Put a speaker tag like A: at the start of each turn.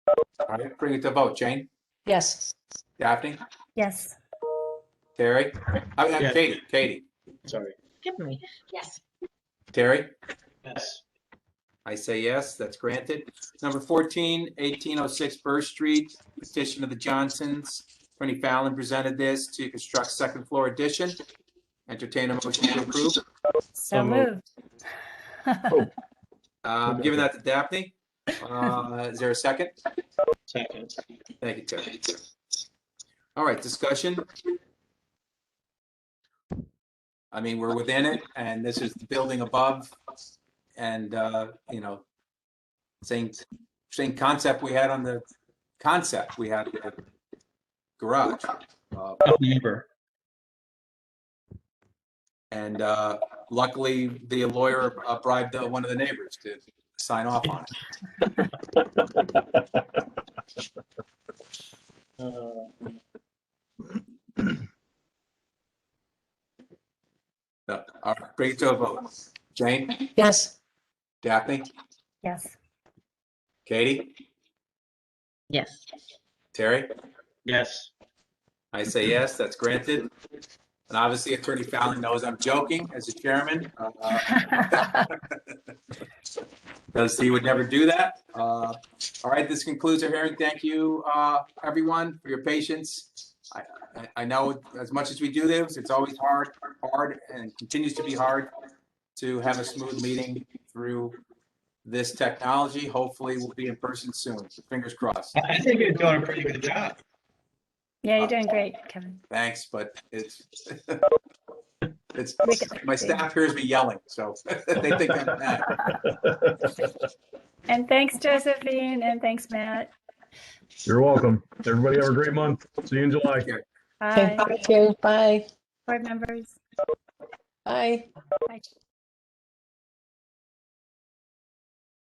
A: All right, bring it to vote. Jane,
B: Yes.
A: Daphne,
C: Yes.
A: Terry, I mean,
D: Yes.
A: Katie, Katie,
D: Sorry.
B: Give me. Yes.
A: Terry?
D: Yes.
A: I say yes, that's granted. Number 14, 1806 Burr Street, petition of the Johnsons. Attorney Fallon presented this to construct second floor addition. Entertain a motion to approve.
C: So moved.
A: Uh, I'm Giving that to Daphne. Uh, Is there a second?
D: Second.
A: Thank you, Terry. All right, discussion? I mean, we're within it, and this is the building above, and, uh, you know, same, same concept we had on the, concept we had with the garage. Uh,
D: Neighbor.
A: And uh, luckily, the lawyer uh, bribed uh, one of the neighbors to sign off on it.
D: Uh,
A: So, All right, bring it to a vote. Jane,
B: Yes.
A: Daphne,
C: Yes.
A: Katie,
B: Yes.
A: Terry?
D: Yes.
A: I say yes, that's granted. And obviously Attorney Fallon knows I'm joking as a chairman, uh, because he would never do that. Uh, All right, this concludes our hearing. Thank you, uh, everyone, for your patience. I- I- I know as much as we do this, it's always hard, hard, and continues to be hard to have a smooth meeting through this technology. Hopefully, we'll be in person soon. Fingers crossed.
D: I I think you're doing a pretty good job.
C: Yeah, you're doing great, Kevin.
A: Thanks, but it's, it's,
C: We can-
A: my staff hears me yelling, so they think I'm mad.
C: And thanks, Josephine, and thanks, Matt.
E: You're welcome. Everybody have a great month. See you in July.
B: Okay,
C: Bye,
B: thank you. Bye.
C: board members.
B: Bye.
C: Bye.